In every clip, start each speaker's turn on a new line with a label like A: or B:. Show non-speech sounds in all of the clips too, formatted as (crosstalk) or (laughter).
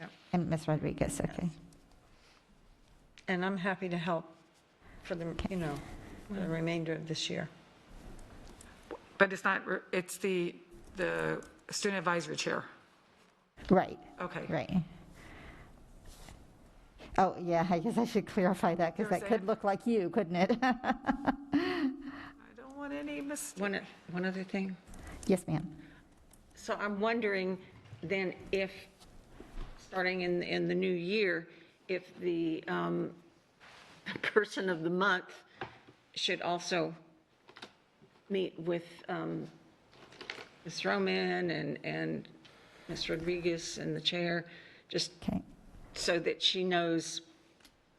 A: Yep.
B: And Ms. Rodriguez, okay.
A: And I'm happy to help for the, you know, the remainder of this year.
C: But it's not, re- it's the, the student advisory chair.
B: Right,
C: Okay.
B: right. Oh, yeah, I guess I should clarify that
C: You were
B: because that could
C: saying?
B: look like you, couldn't it? (laughs)
C: I don't want any mistakes.
D: One, one other thing.
B: Yes, ma'am.
D: So I'm wondering then if, starting in, in the new year, if the um, person of the month should also meet with um, Ms. Roman and, and Ms. Rodriguez and the chair, just
B: Okay,
D: so that she knows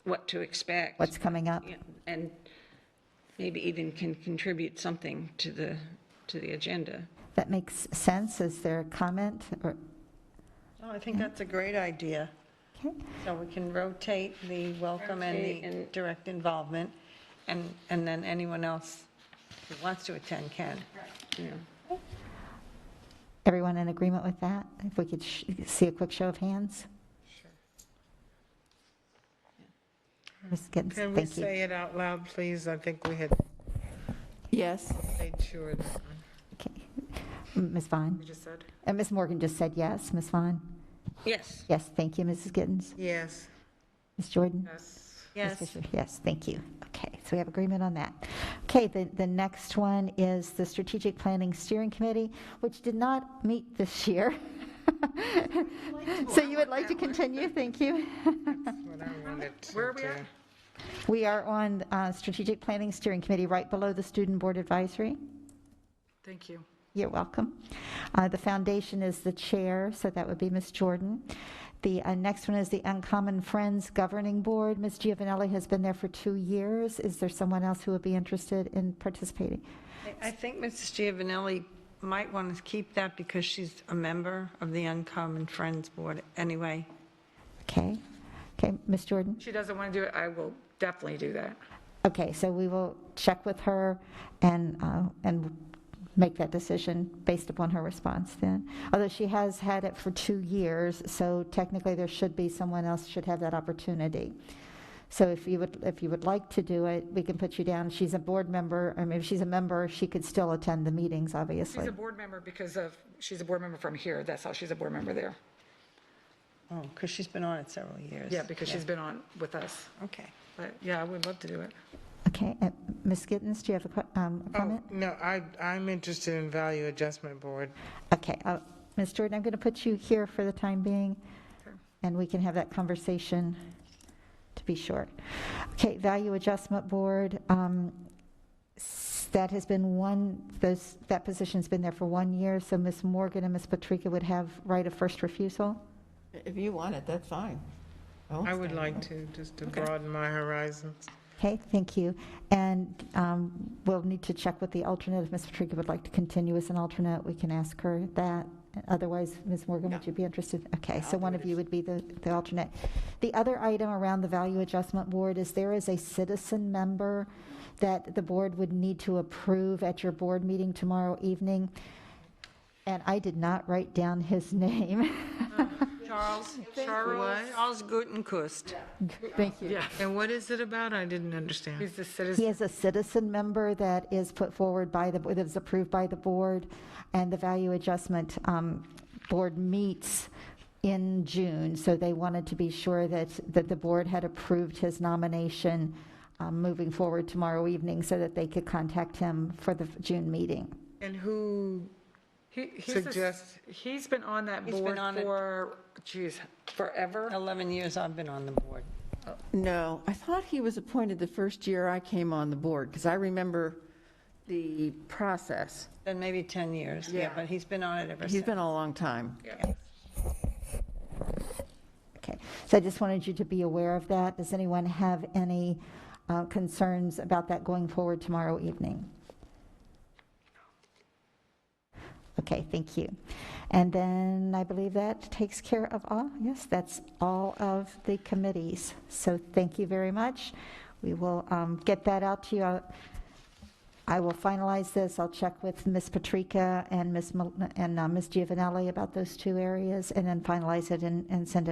D: what to expect.
B: what's coming up?
D: Yeah, And maybe even can contribute something to the, to the agenda.
B: That makes sense. Is there a comment? or-
A: Oh, I think that's a great idea.
B: Okay,
A: So we can rotate the welcome and
D: Rotate
A: the
D: and-
A: direct involvement, and, and then anyone else who wants to attend can.
D: Yeah.
B: everyone in agreement with that? If we could sh- see a quick show of hands? Ms. Gittens,
E: Can we
B: thank you.
E: say it out loud, please? I think we had
F: Yes.
E: made sure that
B: Okay. M- Ms. Vaughn?
C: You just said.
B: And Ms. Morgan just said yes. Ms. Vaughn?
D: Yes.
B: Yes, thank you, Mrs. Gittens.
E: Yes.
B: Ms. Jordan?
C: Yes.
B: Ms. Fisher, Yes, thank you. Okay, so we have agreement on that. Okay, the, the next one is the Strategic Planning Steering Committee, which did not meet this year. (laughs) So you would like to continue? Thank you.
E: What I wanted to
C: Where are we at?
E: do.
B: We are on uh, Strategic Planning Steering Committee, right below the Student Board Advisory.
C: Thank you.
B: You're welcome. Uh, The foundation is the chair, so that would be Ms. Jordan. The uh, next one is the Uncommon Friends Governing Board. Ms. Giovanelli has been there for two years. Is there someone else who would be interested in participating?
A: I- I think Mrs. Giovanelli might want to keep that because she's a member of the Uncommon Friends Board anyway.
B: Okay, okay, Ms. Jordan?
C: She doesn't want to do it, I will definitely do that.
B: Okay, so we will check with her and, uh, and make that decision based upon her response then. Although she has had it for two years, so technically there should be, someone else should have that opportunity. So if you would, if you would like to do it, we can put you down. She's a board member, I mean, if she's a member, she could still attend the meetings,
C: She's
B: obviously.
C: a board member because of, she's a board member from here, that's how she's a board member there.
A: Oh, because she's been on it several years.
C: Yeah, because she's been on with us.
A: Okay.
C: But yeah, I would love to do it.
B: Okay, uh, Ms. Gittens, do you have a que- um, a
E: Oh,
B: comment?
E: no, I, I'm interested in Value Adjustment Board.
B: Okay, uh, Ms. Jordan, I'm going to put you here for the time being, and we can have that conversation to be short. Okay, Value Adjustment Board, um, s- that has been one, those, that position's been there for one year, so Ms. Morgan and Ms. Patrica would have right of first refusal.
F: If you want it, that's fine. won't
E: I would
F: stand
E: like to, just to broaden my horizons.
B: Okay, thank you. And um, we'll need to check with the alternate. If Ms. Patrica would like to continue as an alternate, we can ask her that. Otherwise, Ms. Morgan, would you be interested? Okay, so one of you would be the, the alternate. The other item around the Value Adjustment Board is there is a citizen member that the board would need to approve at your board meeting tomorrow evening. And I did not write down his (laughs) name.
A: Charles,
E: What?
A: Charles, Charles Gutenkust.
B: Thank you.
E: And what is it about? I didn't understand.
C: He's the citizen,
B: He is a citizen member that is put forward by the, that is approved by the board, and the Value Adjustment um, Board meets in June, so they wanted to be sure that, that the board had approved his nomination um, moving forward tomorrow evening, so that they could contact him for the June meeting.
E: And who,
C: he, he's, a-
E: Suggest-
C: he's been on that
A: He's been
C: board
A: on it.
C: for, geez, forever?
A: 11 years I've been on the board.
F: No, I thought he was appointed the first year I came on the board, because I remember the process.
A: Then maybe 10 years, yeah, but he's been on it ever
F: He's
A: since.
F: been on a long time.
B: Okay, so I just wanted you to be aware of that. Does anyone have any uh, concerns about that going forward tomorrow evening? Okay, thank you. And then I believe that takes care of all, yes, that's all of the committees. So thank you very much. We will um, get that out to you. I'll- I will finalize this. I'll check with Ms. Patrica and Ms. Mil- and uh, Ms. Giovanelli about those two areas, and then finalize it and and send it